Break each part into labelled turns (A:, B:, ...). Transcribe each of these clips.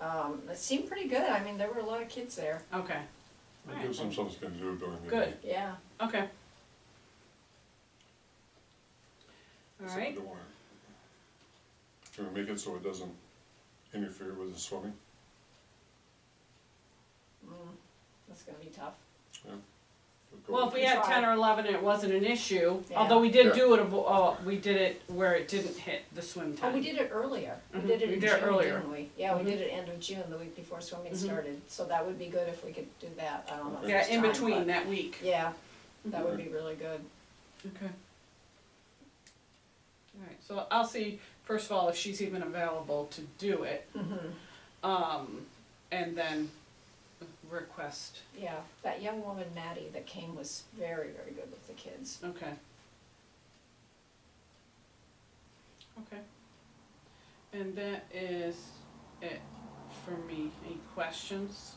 A: Um, it seemed pretty good, I mean, there were a lot of kids there.
B: Okay,
C: It gives them something to do during the day.
B: Good.
A: Yeah.
B: okay. All
C: So we
B: right,
C: don't wanna- Can we make it so it doesn't interfere with the swimming?
A: Mm, that's gonna be tough.
C: Go
B: well, if
C: with
B: we
C: it.
B: had ten or eleven, it wasn't an issue, although
A: Yeah.
B: we did
C: Yeah.
B: do it, avo- oh, we did it where it didn't hit the swim
A: Oh,
B: time.
A: we did it earlier, we
B: Mhm,
A: did it
B: we
A: in
B: did it
A: June,
B: earlier.
A: didn't we? Yeah, we
B: Mhm.
A: did it end of June, the week before swimming
B: Mhm.
A: started, so that would be good if we could do that, I don't know. if
B: Yeah,
A: there's
B: in
A: time,
B: between
A: but-
B: that week.
A: Yeah, that would
B: Mm-hmm.
A: be really good.
B: Okay. Alright, so I'll see, first of all, if she's even available to do it,
A: Mm-hmm.
B: um, and then request,
A: Yeah, that young woman Maddie that came was very, very good with the kids.
B: okay. Okay. And that is it for me, any questions?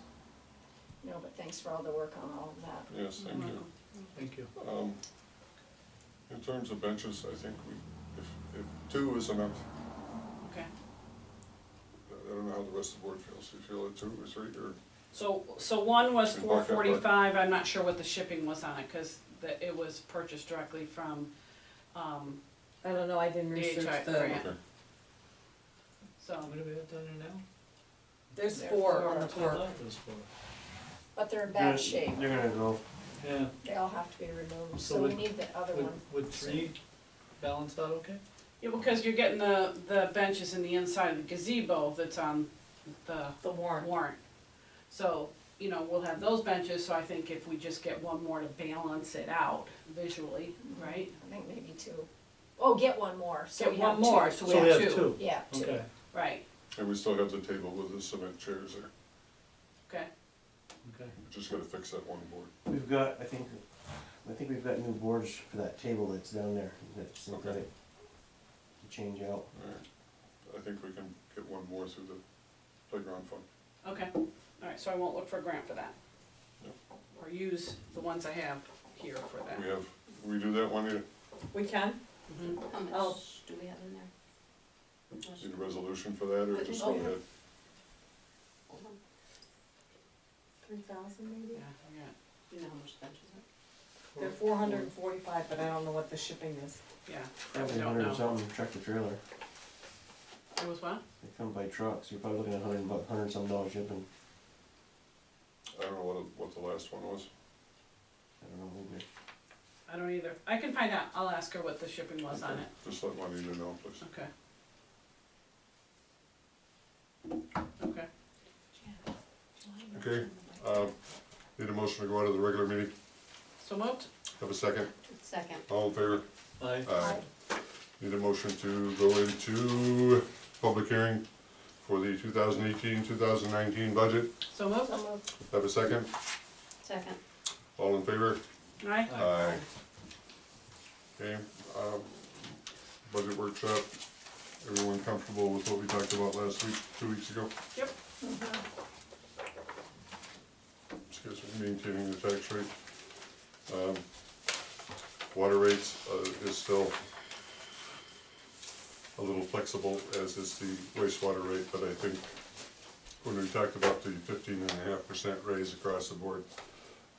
A: No, but thanks for all the work on all of that.
C: Yes, thank you.
D: Thank you.
B: Mm-hmm.
C: Um, in terms of benches, I think we, if, if two is enough,
B: Okay,
C: I don't know how the rest of the board feels, do you feel it two or three, or,
B: so, so one was
C: Should mark
B: four
C: that part.
B: forty-five, I'm not sure what the shipping was on it, cause the, it was purchased directly from, um,
E: I don't know, I didn't research
B: DHI
E: the,
B: grant,
C: okay,
B: so.
D: What have we got down there now?
E: there's
A: There
E: four
A: are
E: on the
D: That's what I
E: park.
D: thought it was for.
A: But they're in
F: They're-
A: bad shape,
F: They're gonna go.
D: Yeah,
A: they all have to be removed,
D: So
A: so we
D: would-
A: need the other
D: would,
A: one.
D: would three balance out okay?
B: Yeah, because you're getting the, the benches in the inside of the gazebo that's on the
E: The warrant.
B: warrant. So, you know, we'll have those benches, so I think if we just get one more to balance it out visually, right?
A: I think maybe two. Oh, get one more, so
B: Get
A: we have
B: one
A: two.
B: more, so we have two.
D: So we
A: Yeah,
D: have two,
A: two.
D: okay,
B: Right,
C: and we still have the table with the cement chairs there,
B: okay,
D: okay.
C: we just gotta fix that one board.
F: We've got, I think, I think we've got new boards for that table that's down there, that's synthetic. To change out.
C: Alright, I think we can get one more through the playground fund.
B: okay. All right, so I won't look for a grant for that.
C: Yep.
B: Or use the ones I have here for
C: We
B: that.
C: have, we do that one, you
E: We can?
B: Mhm.
G: How
E: Oh.
G: much do we have in there? Much?
C: need a resolution for that, or just go
G: Okay.
C: ahead?
G: Hold on. Three thousand
B: Yeah,
G: maybe?
B: yeah.
G: Do you know how much that is?
E: They're four hundred and forty-five, but I don't know what the shipping is.
B: yeah,
F: Probably
B: don't
F: a hundred
B: know.
F: and something tractor trailer.
B: it was what?
F: They come by trucks, you're probably looking at a hundred, bu- hundred and some dollars shipping.
C: I don't know what, what the last one was,
F: I don't know, maybe.
B: I don't either. I can find out, I'll ask her what the shipping was on it,
C: just let Juanita know, please.
B: okay. Okay.
C: Okay, uh, need a motion to go out of the regular meeting,
B: So moved?
C: have a second,
G: Second.
C: all in favor?
D: Aye.
C: Aye. Need a motion to go into public hearing for the 2018-2019 budget.
B: So moved?
A: So moved.
C: Have a second?
G: Second.
C: All in favor?
B: Aye.
C: Aye. Okay, um, budget workshop. Everyone comfortable with what we talked about last week, two weeks ago?
B: Yep.
C: Excuse me, maintaining the tax rate. Um, Water rates uh, is still a little flexible, as is the wastewater rate, but I think when we talked about the fifteen and a half percent raise across the board,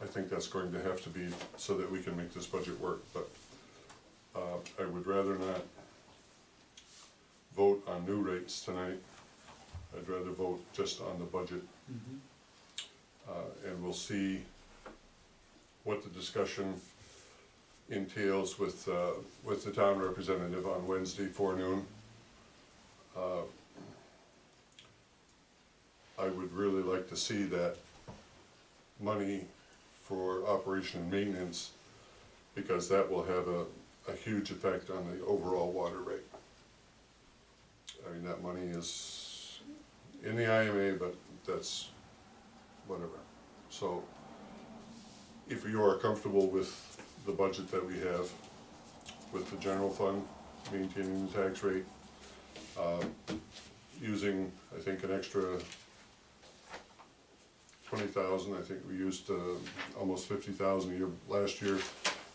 C: I think that's going to have to be so that we can make this budget work, but uh, I would rather not vote on new rates tonight. I'd rather vote just on the budget
D: Mhm.
C: uh, and we'll see what the discussion entails with, uh, with the town representative on Wednesday forenoon. Uh, I would really like to see that money for operation and maintenance, because that will have a, a huge effect on the overall water rate. I mean, that money is in the IMA, but that's whatever. So if you are comfortable with the budget that we have, with the general fund, maintaining the tax rate, uh, using, I think, an extra twenty thousand, I think we used uh, almost fifty thousand a year last year.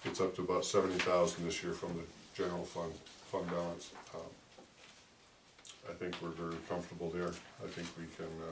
C: It's up to about seventy thousand this year from the general fund, fund balance. Um, I think we're very comfortable there. I think we can uh,